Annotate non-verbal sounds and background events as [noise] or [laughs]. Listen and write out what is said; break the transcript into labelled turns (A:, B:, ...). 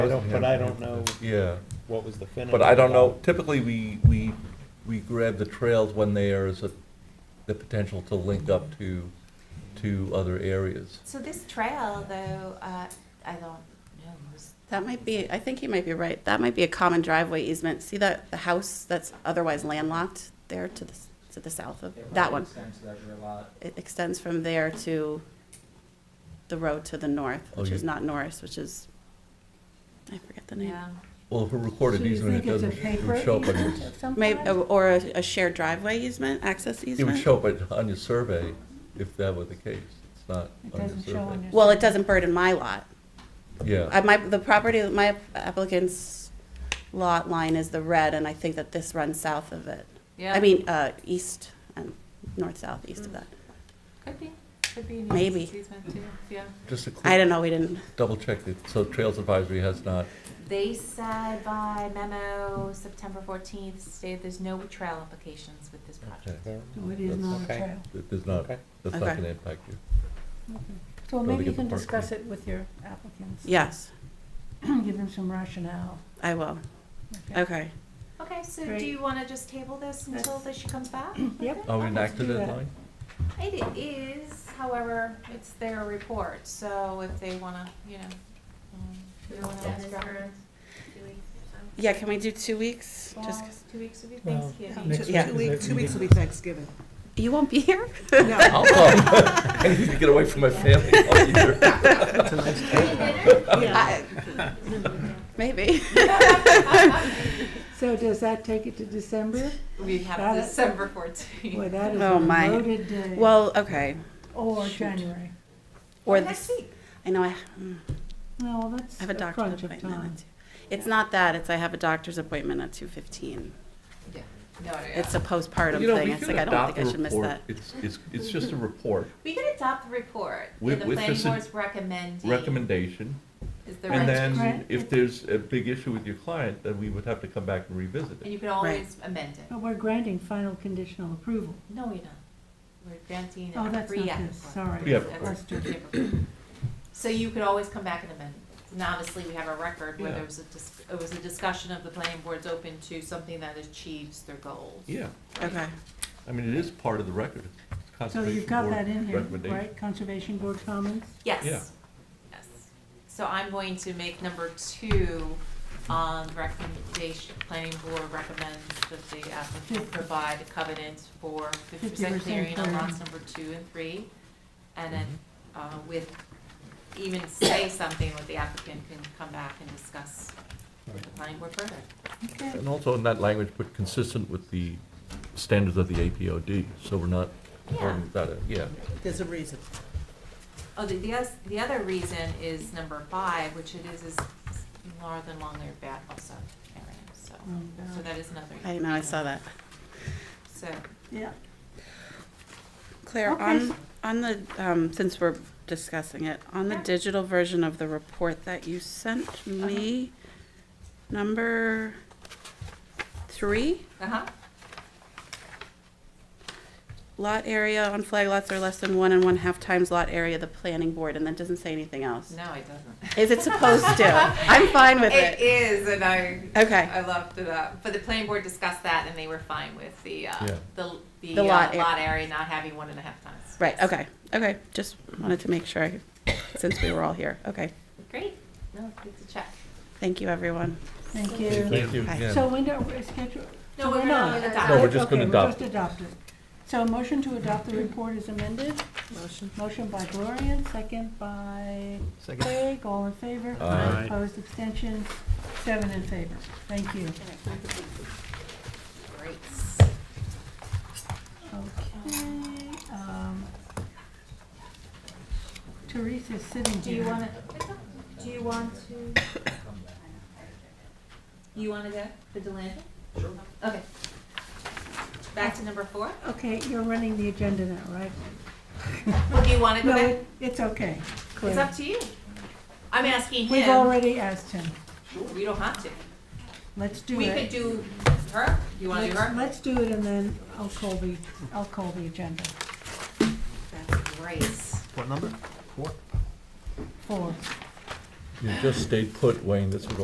A: I don't- But I don't know
B: Yeah,
A: what was the finish.
B: but I don't know, typically, we, we, we grab the trails when there is a, the potential to link up to, to other areas.
C: So this trail, though, uh, I don't know. was-
D: That might be, I think you might be right. That might be a common driveway easement. See that, the house that's otherwise landlocked there to the, s- to the south of, that one.
E: Extends to that rear lot.
D: It extends from there to the road to the north,
B: Oh,
D: which
B: you-
D: is not Norris, which is, I forget the name.
C: Yeah.
B: Well, if a recorded
F: So you
B: easement, it
F: think it's a
B: doesn't, it
F: paper
B: would show up, on
F: [laughs] easement
B: your-
F: of some
D: Maybe, uh,
F: kind?
D: or a a shared driveway easement, access
B: it would
D: easement?
B: show up on- on your survey, if that were the case, it's not
F: It
B: on your
F: doesn't show on
B: survey.
F: your.
D: Well, it doesn't burden my lot. I,
B: Yeah,
D: Uh, my, the property, my applicant's lot line is the red, and I think that this runs south of it.
C: Yeah.
D: I mean, uh, east and north-south, east of that.
C: Could be, could be. an
D: Maybe.
C: easement too, yeah.
B: just a
D: I
B: quick,
D: don't know, we didn't,
B: double check, that. so Trails Advisory has not,
C: They said by memo, September fourteenth, stated there's no trail implications with this
B: okay,
C: project.
F: No, it is not a
A: Okay.
F: trail.
B: that there's not,
A: Okay.
B: that's not
D: Okay.
B: gonna impact you.
F: So
B: Gotta
F: maybe you
B: get the
F: can
B: park
F: discuss it with your applicants. [clears throat]
D: yes,
F: Give them some rationale.
D: I will. Okay.
C: Okay, so
F: Great.
C: do you want to just table this until that she comes
D: [clears throat]
C: back?
F: Yep.
B: Are Oh, we
F: I'd like to
B: enacted
F: do
B: that
F: that.
B: line?
C: It is, however, it's their report, so if they want to, you know. um, you don't wanna
G: Dennis
C: interrupt.
G: for two weeks or so.
D: Yeah, can we do two weeks? Just,
C: Well,
D: 'cause-
C: Two weeks would be
A: Well,
C: [laughs] Thanksgiving.
A: next week
D: Yeah.
H: Two
A: is
H: weeks,
A: it
H: two weeks will
A: meeting?
H: be Thanksgiving.
D: you won't be here? [laughs]
H: No,
B: I'll [laughs] come. Anything Oh, to get away from my family, I'll be here.
D: I- [laughs] Maybe.
F: So does that take it to December?
C: We have
F: Got it.
C: December fourteenth.
F: Boy, that is
D: Oh,
F: a
D: my.
F: loaded day.
D: Well, okay.
F: Or
D: shoot.
F: January.
D: Or
C: next
D: this,
C: week.
D: I know I, mm,
F: Well,
D: I
F: that's
D: have a
F: a
D: doctor's
F: crunch of
D: appointment.
F: time.
D: at two- It's not that, it's I have a doctor's appointment at two fifteen.
C: No, no,
D: It's a postpartum
B: You know, we
D: thing. It's
B: could
D: like, I don't
B: adopt
D: think I
B: the
D: should miss
B: report.
D: that.
B: It's, it's, it's just a
F: [laughs]
B: report,
C: We can adopt the report,
B: With-
C: and the
B: with
C: planning
B: this in-
C: board's recommending.
B: recommendation,
C: Is the
B: and
C: rec-
B: then
F: Right.
B: if there's a big issue with your client, then we would have to come back and revisit
C: And
B: it.
C: you can always amend it.
F: But we're granting final conditional approval.
C: No, you're not. We're granting
F: Oh,
C: a
F: that's
C: free
F: not
C: act.
F: this, sorry.
B: Pre-app
C: That's
B: report.
C: a pre-app. So you could always come back and amend it. And obviously, we have a record where
B: Yeah.
C: there was a, dis- it was a discussion of the planning board's open to something that achieves their goals.
B: Yeah,
D: Okay.
B: I mean, it is part of the record. It's
F: So
B: Conservation
F: you've got
B: Board
F: that in here,
B: recommendation.
F: right? Conservation Board comments?
C: Yes.
B: Yeah.
C: Yes. So I'm going to make number two, um, recommendation, planning board recommends that the applicant
F: Fifty.
C: provide a covenant for fifty percent
F: 50%
C: clearing on
F: clearing.
C: lots number two and three. And then, uh, with, even say something with the applicant can come back and discuss with the planning board further.
F: Okay.
B: And also in that language, but consistent with the standards of the APOD, so we're not,
C: Yeah.
B: um, that, yeah.
H: there's a reason.
C: Oh, the, the, oth- the other reason is number five, which it is, is northern long Layer bat also area, so,
F: Oh,
C: so
F: no.
C: that is another.
D: I know, I saw that.
C: So,
F: Yeah.
D: Claire,
F: Okay.
D: on, on the, um, since we're discussing it, on the
C: Yeah. Uh-huh.
D: digital version of the report that you sent me, number three,
C: uh-huh.
D: lot area on flag lots are less than one and one-half times lot area of the planning board, and that doesn't say anything
C: [laughs]
D: else.
C: No, it doesn't.
D: Is it supposed to? I'm fine with it.
C: It is, and I,
D: Okay.
C: I left it up. But the planning board discussed that, and they were fine with the, uh,
B: Yeah.
C: the, the
D: The
C: uh,
D: lot area.
C: lot area not having one and a half times.
D: Right, okay, okay, just wanted to make sure, I- since we were all here. Okay,
C: Great. No, good to check.
D: thank you, everyone.
F: Thank you.
B: Thank you
D: Hi.
B: again.
F: So when do we schedule?
C: No,
F: so
C: we're not gonna adopt
B: No, we're just
F: Okay,
B: gonna
F: we're
B: adopt.
F: just adopt it. So a motion to adopt the report is amended.
H: Motion.
F: Motion by Gloria, second by
A: Second.
F: Craig, all in favor?
B: Aye.
F: Opposed, abstentions, seven in favor. Thank you.
C: Great.
F: Okay, um, Teresa's sitting here.
C: Do you want to, do you want to? You want to go, the Delaney? Sure. Okay. Back to number four?
F: Okay, you're running the agenda now,
C: [laughs]
F: right?
C: Or do you want to go
F: No,
C: back?
F: it- it's okay.
C: It's
F: Claire.
C: up to you. I'm asking
F: We've
C: him.
F: already asked him.
C: We don't have to.
F: Let's do it.
C: We could do her. You want to do
F: Let's-
C: her?
F: Let's do it and then I'll call the, I'll call the agenda
C: That's great.
A: What number? Four?
F: for
B: You just stayed put, Wayne, that's what